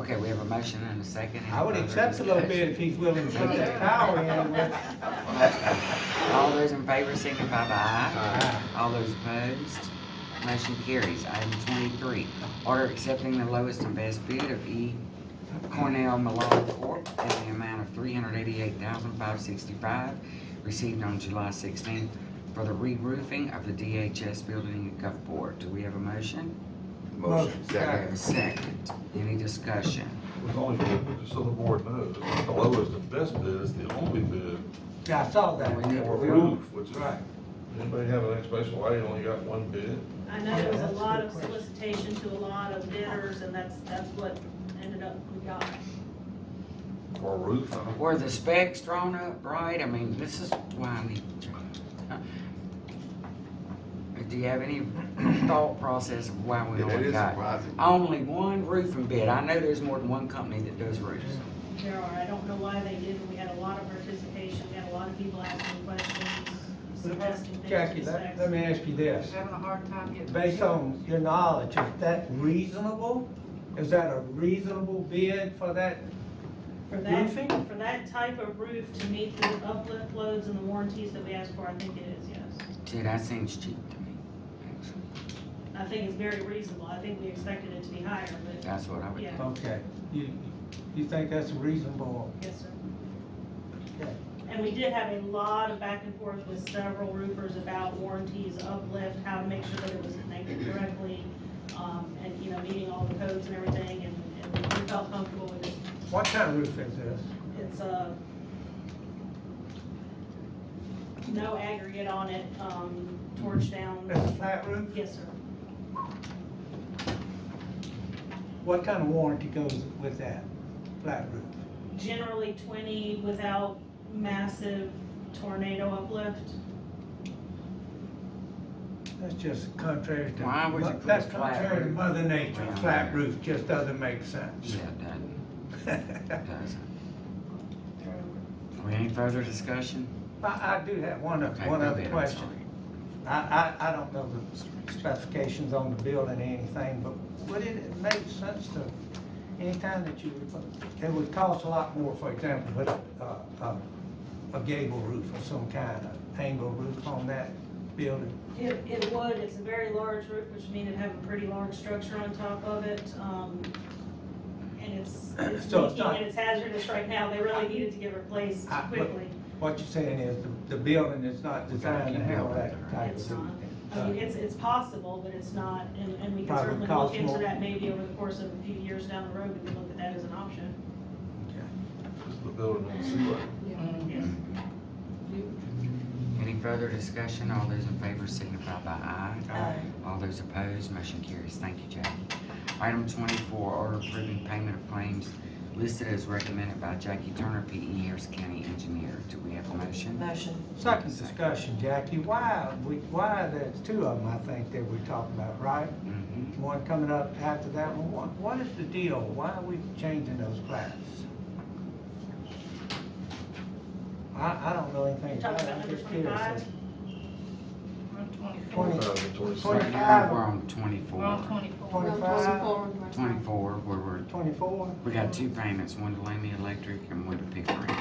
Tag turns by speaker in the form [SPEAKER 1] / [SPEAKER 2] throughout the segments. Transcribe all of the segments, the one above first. [SPEAKER 1] Okay, we have a motion and a second. Any
[SPEAKER 2] I would
[SPEAKER 1] further
[SPEAKER 2] accept a little bit
[SPEAKER 1] discussion?
[SPEAKER 2] if he's willing to put that power in, but
[SPEAKER 1] All those in favor signify by aye.
[SPEAKER 2] Aye.
[SPEAKER 1] All those opposed, motion carries. Item twenty-three, order accepting the lowest and best bid of E. Cornell Malone Corp. in the amount of three hundred eighty-eight thousand five sixty-five, received on July sixteenth for the re-roofing of the DHS building in Gulfport. Do we have a motion?
[SPEAKER 2] Motion.
[SPEAKER 1] Second. Second. Any discussion?
[SPEAKER 3] With only, just so the board knows, the lowest and best bid is the only bid
[SPEAKER 2] yeah, I saw that.
[SPEAKER 1] We need
[SPEAKER 3] for
[SPEAKER 1] to-
[SPEAKER 3] roof, which is,
[SPEAKER 2] Right.
[SPEAKER 3] anybody have an explanation why you only got one bid?
[SPEAKER 4] I know there was
[SPEAKER 2] Yeah,
[SPEAKER 4] a
[SPEAKER 2] that's a
[SPEAKER 4] lot
[SPEAKER 2] good
[SPEAKER 4] of
[SPEAKER 2] question.
[SPEAKER 4] solicitation to a lot of bidders, and that's, that's what ended up we got.
[SPEAKER 3] For a roof?
[SPEAKER 1] Were the specs drawn up right? I mean, this is why I need. Do you have any thought process of why we
[SPEAKER 5] It- It
[SPEAKER 1] only
[SPEAKER 5] is
[SPEAKER 1] got
[SPEAKER 5] surprising.
[SPEAKER 1] only one roofing bid? I know there's more than one company that does roofs.
[SPEAKER 4] There are, I don't know why they did, and we had a lot of participation, we had a lot of people asking questions, suggesting things.
[SPEAKER 2] Jackie, let,
[SPEAKER 4] specs.
[SPEAKER 2] let me ask you this.
[SPEAKER 6] Having a hard time getting.
[SPEAKER 2] Based on your knowledge, is that reasonable? Is that a reasonable bid for that?
[SPEAKER 4] For that,
[SPEAKER 2] Roofing?
[SPEAKER 4] for that type of roof to meet the uplift loads and the warranties that we asked for, I think it is, yes.
[SPEAKER 1] Dude, that seems cheap to me. actually.
[SPEAKER 4] I think it's very reasonable, I think we expected it to be higher, but,
[SPEAKER 1] That's what I would.
[SPEAKER 4] yeah,
[SPEAKER 2] Okay, you, you think that's reasonable?
[SPEAKER 4] yes, sir.
[SPEAKER 2] Okay.
[SPEAKER 4] And we did have a lot of back and forth with several roofers about warranties, uplift, how to make sure that it was connected correctly, um, and, you know, meeting all the codes and everything, and, and we felt comfortable with it.
[SPEAKER 2] What kind of roof is this?
[SPEAKER 4] It's, uh, no aggregate on it, um, torch
[SPEAKER 2] It's a
[SPEAKER 4] down,
[SPEAKER 2] flat roof?
[SPEAKER 4] yes, sir.
[SPEAKER 2] What kind of warranty goes with that flat roof?
[SPEAKER 4] Generally twenty without massive tornado uplift.
[SPEAKER 2] That's just contrary to.
[SPEAKER 1] Why would you put a
[SPEAKER 2] That's
[SPEAKER 1] flat
[SPEAKER 2] contrary to
[SPEAKER 1] roof?
[SPEAKER 2] Mother Nature.
[SPEAKER 1] Well,
[SPEAKER 2] Flat
[SPEAKER 1] yeah.
[SPEAKER 2] roof just doesn't make
[SPEAKER 1] Yeah,
[SPEAKER 2] sense.
[SPEAKER 1] it doesn't, it doesn't. We Any further discussion?
[SPEAKER 2] I, I do have one, oth-
[SPEAKER 1] Okay,
[SPEAKER 2] one
[SPEAKER 1] go
[SPEAKER 2] other
[SPEAKER 1] ahead, I'm
[SPEAKER 2] question. I, I, I don't know the specifications on the building or anything, but would it make sense to, anytime that you, it would cost a lot more, for example, with a, a, a gable roof or some kind of angle roof on that building?
[SPEAKER 4] It, it would, it's a very large roof, which means it'd have a pretty large structure on top of it, um, and it's, it's
[SPEAKER 2] So it's
[SPEAKER 4] leaking
[SPEAKER 2] not-
[SPEAKER 4] and it's hazardous right now, they really needed to get replaced
[SPEAKER 2] I- but-
[SPEAKER 4] quickly.
[SPEAKER 2] What you're saying is the, the building is not
[SPEAKER 1] We got a
[SPEAKER 2] designed to
[SPEAKER 1] few
[SPEAKER 2] handle
[SPEAKER 1] buildings
[SPEAKER 2] that
[SPEAKER 1] that are-
[SPEAKER 2] type
[SPEAKER 4] It's
[SPEAKER 2] of roof.
[SPEAKER 4] not, I mean, it's, it's possible, but it's not, and, and we can
[SPEAKER 2] Probably
[SPEAKER 4] certainly
[SPEAKER 2] cost
[SPEAKER 4] look into
[SPEAKER 2] more.
[SPEAKER 4] that maybe over the course of a few years down the road, we can look at that as an option.
[SPEAKER 3] Is the building on the seaway?
[SPEAKER 4] Yes.
[SPEAKER 1] Any further discussion? All those in favor signify by aye. All those opposed, motion carries. Thank you, Jackie. Item twenty-four, order approving payment of claims listed as recommended by Jackie Turner, P E Harris County Engineer. Do we have a motion?
[SPEAKER 6] Motion.
[SPEAKER 2] Second discussion, Jackie, why, we, why, there's two of them, I think, that we're talking about, right?
[SPEAKER 1] Mhm.
[SPEAKER 2] One coming up after that one, what, what is the deal? Why are we changing those class? I, I don't know anything
[SPEAKER 4] You're
[SPEAKER 2] about
[SPEAKER 4] talking
[SPEAKER 2] it,
[SPEAKER 4] about
[SPEAKER 2] I'm
[SPEAKER 4] number
[SPEAKER 2] just curious.
[SPEAKER 4] twenty-five?
[SPEAKER 2] Twenty,
[SPEAKER 3] Five and
[SPEAKER 2] Twenty-
[SPEAKER 3] twenty-six.
[SPEAKER 1] I think
[SPEAKER 2] Five.
[SPEAKER 1] we're on twenty-four.
[SPEAKER 2] twenty-five,
[SPEAKER 1] Twenty-four, where we're,
[SPEAKER 2] twenty-four?
[SPEAKER 1] we got two payments, one to Lamy Electric and one to Pickering.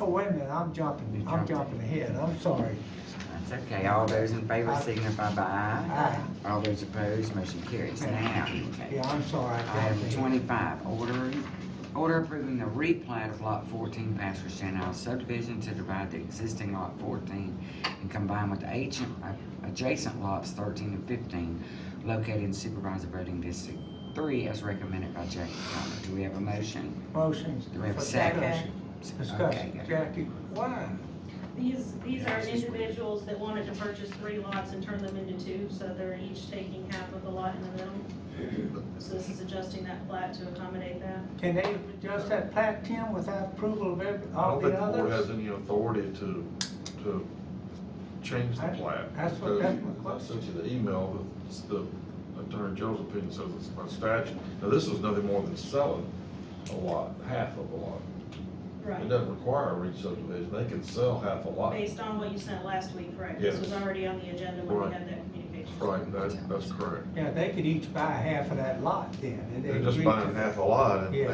[SPEAKER 2] Oh, wait a minute, I'm jumping,
[SPEAKER 1] You
[SPEAKER 2] I'm
[SPEAKER 1] jumped.
[SPEAKER 2] jumping ahead, I'm sorry.
[SPEAKER 1] That's okay. All those in favor signify by aye.
[SPEAKER 2] Aye.
[SPEAKER 1] All those opposed, motion carries. Now,
[SPEAKER 2] Yeah, I'm sorry. I jumped
[SPEAKER 1] Item
[SPEAKER 2] ahead.
[SPEAKER 1] twenty-five, ordering, order approving the replat of lot fourteen, Pastor Stenhouse subdivision to divide the existing lot fourteen and combine with the agent, adjacent lots thirteen and fifteen located in supervisor voting district three as recommended by Jackie Connor. Do we have a motion?
[SPEAKER 2] Motions.
[SPEAKER 1] Do we have a
[SPEAKER 2] for
[SPEAKER 1] second?
[SPEAKER 2] discussion.
[SPEAKER 1] Okay,
[SPEAKER 2] Discussion,
[SPEAKER 1] good.
[SPEAKER 2] Jackie, why?
[SPEAKER 4] These, these
[SPEAKER 1] Yeah,
[SPEAKER 4] are
[SPEAKER 1] this is weird.
[SPEAKER 4] individuals that wanted to purchase three lots and turn them into two, so they're each taking half of the lot in the middle. So this is adjusting that plat to accommodate that.
[SPEAKER 2] Can they adjust that plat ten without approval of every,
[SPEAKER 3] I
[SPEAKER 2] all
[SPEAKER 3] don't think
[SPEAKER 2] the
[SPEAKER 3] the board has
[SPEAKER 2] others?
[SPEAKER 3] any authority to, to change the
[SPEAKER 2] I-
[SPEAKER 3] plat.
[SPEAKER 2] that's what-
[SPEAKER 3] because
[SPEAKER 2] that's my
[SPEAKER 3] I sent you the email, that the Attorney General's opinion says it's by statute. Now, this was nothing more than selling a lot, half of a lot. It
[SPEAKER 4] Right,
[SPEAKER 3] doesn't require a re-subdivision, they can sell half a lot.
[SPEAKER 4] based on what you sent last week, correct? This was
[SPEAKER 3] Yes.
[SPEAKER 4] already on the agenda when we
[SPEAKER 3] Right.
[SPEAKER 4] had that communication.
[SPEAKER 3] Right, that, that's correct.
[SPEAKER 2] Yeah, they could each buy half of that lot then. and they
[SPEAKER 3] They're just
[SPEAKER 2] agreed to
[SPEAKER 3] buying
[SPEAKER 2] that.
[SPEAKER 3] half a lot and
[SPEAKER 2] Yeah.